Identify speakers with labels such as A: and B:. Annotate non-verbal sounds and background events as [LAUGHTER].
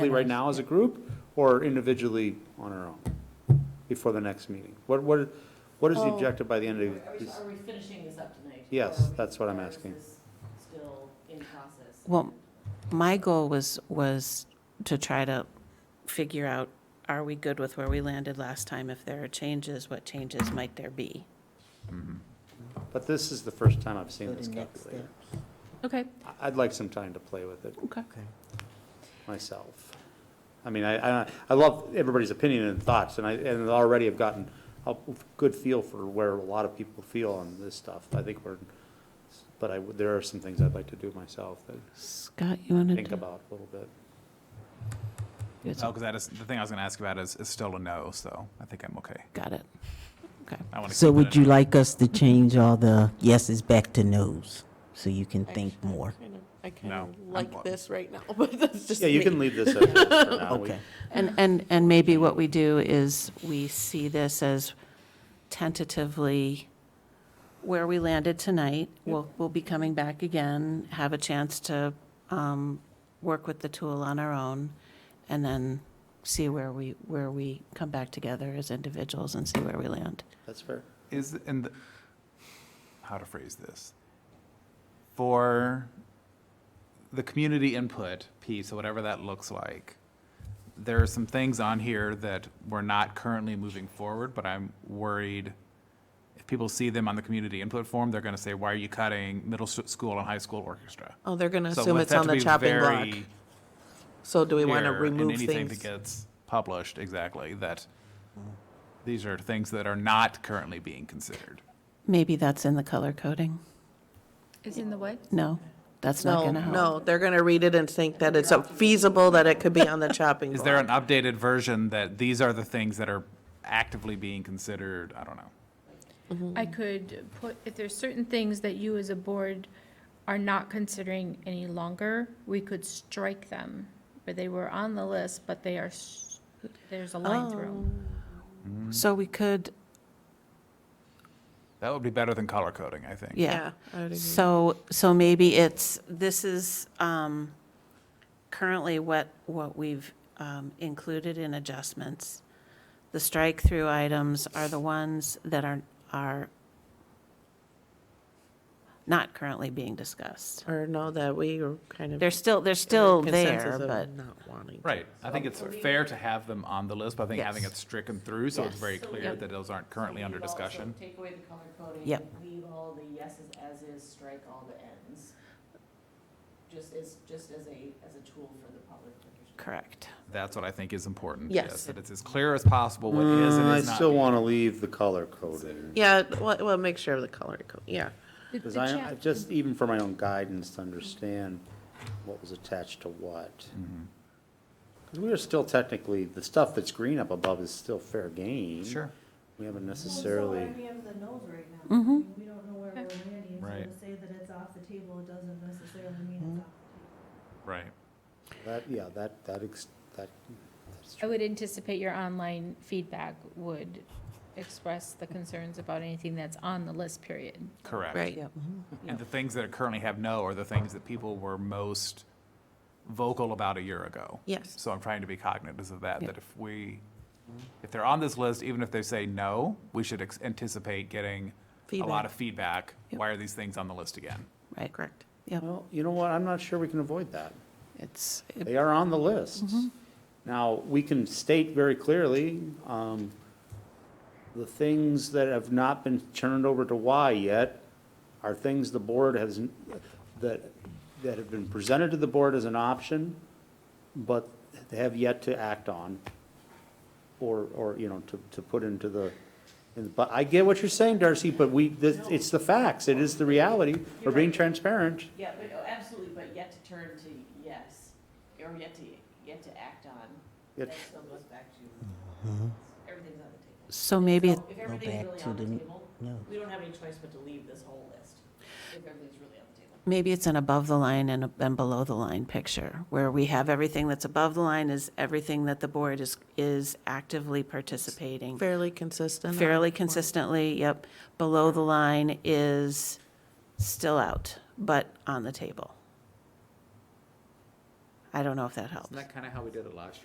A: right now as a group or individually on our own before the next meeting? What, what, what is the
B: Oh.
A: objective by the end
C: Are
A: of
C: we,
A: this?
C: are we finishing this up tonight?
A: Yes,
C: Or-
A: that's what I'm
C: or is
A: asking.
C: this Still in process?
B: Well, my goal was, was to try to figure out, are we good with where we landed last time? If there are changes, what changes might there be?
A: But this is the first time I've
D: Go
A: seen
D: to
A: this
D: next
A: calculator.
D: steps.
B: Okay,
A: I- I'd like some time to play with it
B: okay.
D: Okay.
A: myself. I mean, I, I, I love everybody's opinion and thoughts and I, and already have gotten a good feel for where a lot of people feel on this stuff. I think we're, but I, would- there are some things I'd like to do myself that
B: Scott, you want to?
A: think about a little bit.
E: No, because Oh, that is, the thing I was going to ask about is, is still a no, so I think I'm okay.
B: Got it. Okay.
E: I want to.
D: So would you like us to change all the yeses back to nos, so you can think more?
F: Kind of- I kind
E: No,
F: of
E: I'm
F: like
E: blocked.
F: this right now, but that's just
A: Yeah, you
F: me.
A: can leave this as is for
F: [LAUGHS]
A: now. We-
D: Okay,
B: And, and, and maybe what we do is we see this as tentatively where we landed tonight. We'll, we'll be coming back again, have a chance to um, work with the tool on our own, and then see where we, where we come back together as individuals and see where we land.
A: That's fair.
E: Is, in the, how to phrase this? For the community input piece, or whatever that looks like, there are some things on here that we're not currently moving forward, but I'm worried if people see them on the community input form, they're going to say, why are you cutting middle s- school and high school orchestra?
F: Oh, they're going to
E: So
F: assume
E: let's
F: it's
E: have
F: on
E: to
F: the
E: be
F: chopping block.
E: very
F: So do we want to
E: here in
F: remove
E: anything
F: things?
E: that gets published exactly that these are things that are not currently being considered
B: Maybe that's in the color coding?
G: Is in the what?
B: No, that's not
F: No,
B: going to help.
F: no, they're going to read it and think that it's uh, feasible that it could be
E: [LAUGHS]
F: on the chopping
E: is there an
F: block.
E: updated version that these are the things that are actively being considered i don't know
G: I could put, if there's certain things that you as a board are not considering any longer, we could strike them. Where they were on the list, but they are, s- there's a line through
B: Oh.
G: 'em.
B: So we could,
E: that would be better than color coding i think
B: yeah.
F: I would agree.
B: So, so maybe it's, this is um, currently what, what we've um, included in adjustments. The strike-through items are the ones that are, are not currently being discussed.
F: Or no, that we are kind of.
B: They're still, they're still there,
F: consensus of
B: but,
F: Not wanting. to.
E: right i think it's fair to have them on the list but i think
B: Yes.
E: having it stricken through so it's
B: Yes.
E: very
C: So
E: clear
C: yep.
E: that those aren't currently
C: So
E: under
C: leave all- so
E: discussion
C: Take away the color coding.
B: Yep.
C: Leave all the yeses as is, strike all the ends. Just as, just as a, as a tool for the public. to
B: correct.
E: that's what i think is important
F: Yes.
E: that it's as clear as possible what is and
A: Uh, Mm, I
E: is not
A: still want to leave the color coding.
F: Yeah, well, well, make sure of the color, code. yeah.
G: The- the
A: Because I, I
G: chap-
A: just, even for my own guidance, to understand what was attached to what. Because we are still technically, the stuff that's green up above is still fair game.
E: Mm-hmm. sure
A: We haven't necessarily,
H: Well, it's all right the nose right now. I
B: Mm-hmm.
H: mean, We don't know where we're
G: Okay.
H: landing, so
E: Right.
H: to say that it's off the table, it doesn't necessarily
B: Mm-hmm.
H: mean it's off the table.
E: right
A: that, yeah, that, that, ex- that, that's
G: I
A: true.
G: would anticipate your online feedback would express the concerns about anything that's on the list, period.
E: correct
F: Right.
E: And the things that currently have no are the things that people were most vocal about a year ago.
F: Yes.
E: So I'm trying to be cognizant of that,
B: Yeah.
E: that if we, if they're on this list, even if they say no, we should ex- anticipate getting a lot
F: Feedback.
E: of feedback.
B: Yep.
E: Why are these things on the list again?
B: Right,
F: Correct.
B: yep,
A: Well, you know what, I'm not sure we can avoid that.
B: it's,
A: They are on the list. Now, we can state very clearly, um, the things that have not been turned over to Y yet are things the board has, n- that, that have been presented to the board as an option, but they have yet to act on, or, or, you know, to, to put into the, and- but I get what you're saying, Darcy, but we, this, it's the facts, it is the reality, we're being transparent.
C: Yeah, but, oh, absolutely, but yet to turn to yes, or yet to, yet to act on.
A: Yet-
C: That still goes back to, everything's on the table.
B: so maybe,
C: So If everything's
D: back
C: really
D: to
C: on the
D: the-
C: table,
D: no.
C: we don't have any choice but to leave this whole list, if everything's really on the table.
B: maybe it's an above the line and, a- and below the line picture, where we have everything that's above the line is everything that the board is, is actively participating.
F: Fairly consistent.
B: fairly consistently, yep. Below the line is still out, but on the table. I don't know if that helps.
E: Isn't that kind of how we did it last year?